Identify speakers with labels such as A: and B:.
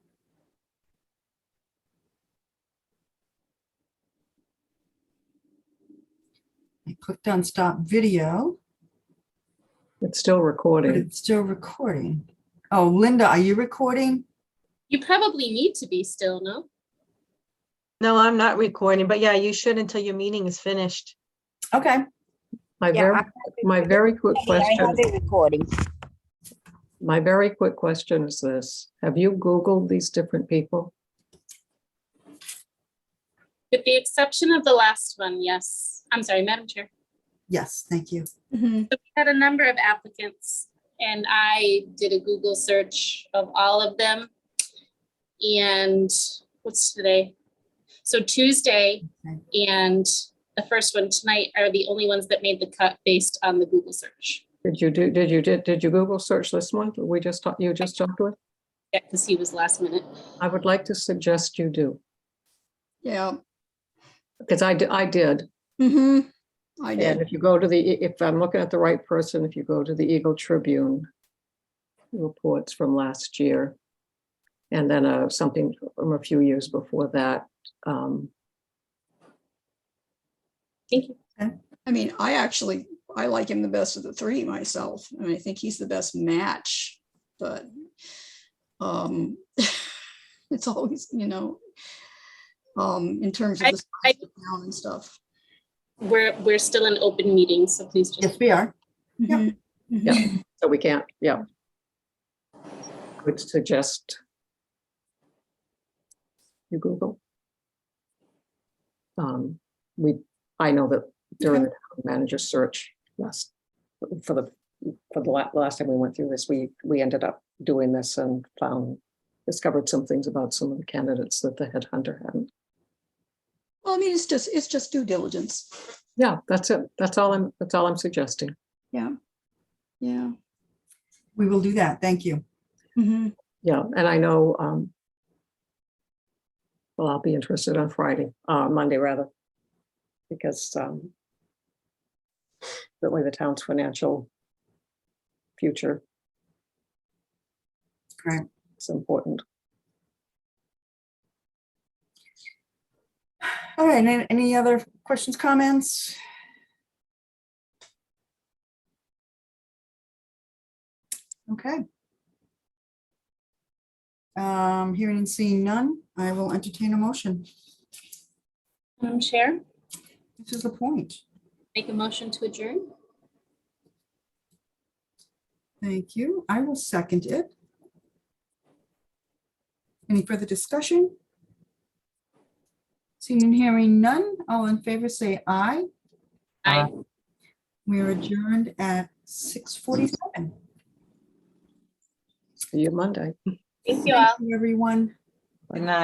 A: clicked on stop video,
B: It's still
A: but
B: recording.
A: it's still recording. Oh, Linda, are you recording?
C: You probably need to be still, no?
D: No, I'm not recording, but yeah, you should until your meeting is finished.
A: Okay.
B: My
E: Yeah,
B: very,
E: I-
B: my very quick
E: I
B: question,
E: have it recording.
B: my very quick question is this. Have you Googled these different people?
C: With the exception of the last one, yes. I'm sorry, Madam Chair.
A: Yes, thank you.
C: Had a number of applicants and I did a Google search of all of them. And what's today? So Tuesday and the first one tonight are the only ones that made the cut based on the Google search.
B: Did you do, did you, did, did you Google search this one? that We just talked, you just talked with?
C: Yeah, because he was last minute.
B: I would like to suggest you do,
F: Yeah.
B: because I, di- I did.
F: hmm I
B: And
F: did.
B: if you go to the, E- if I'm looking at the right person, if you go to the Eagle Tribune reports from last year, and then uh, something from a few years before that, um,
C: Thank you.
F: I mean, I actually, I like him the best of the three myself. I mean, I think he's the best match, but um it's always, you know, um, in terms of the
C: I-
F: size of the town and stuff.
C: We're, we're still in open meeting, so please
A: Yes,
C: just,
A: we are. Yeah.
F: Mhm, mhm.
B: Yeah. So we can't, yeah. Would suggest you Google. Um, we, I know that during the town manager search last, for the, for the la- last time we went through this, we, we ended up doing this and found, discovered some things about some of the candidates that the headhunter hadn't.
F: Well, I mean, it's just, it's just due diligence.
B: Yeah, that's it. That's all I'm, that's all I'm suggesting.
F: Yeah. Yeah.
A: We will do that. Thank you.
F: Mhm.
B: Yeah, and I know, um, well, I'll be interested on Friday, uh, Monday rather, because, um, certainly the town's financial future.
A: Right.
B: It's important.
A: All right, and any other questions, comments? Okay. Um, hearing and seeing none, I will entertain a motion.
C: Madam Chair,
A: This is the point.
C: make a motion to adjourn.
A: Thank you. I will second it. Any further discussion? Seeing and hearing none, all in favor say aye.
C: Aye.
A: We are adjourned at 6:47.
B: See you Monday.
C: Thank you all.
A: Thank you, everyone.
E: Good night.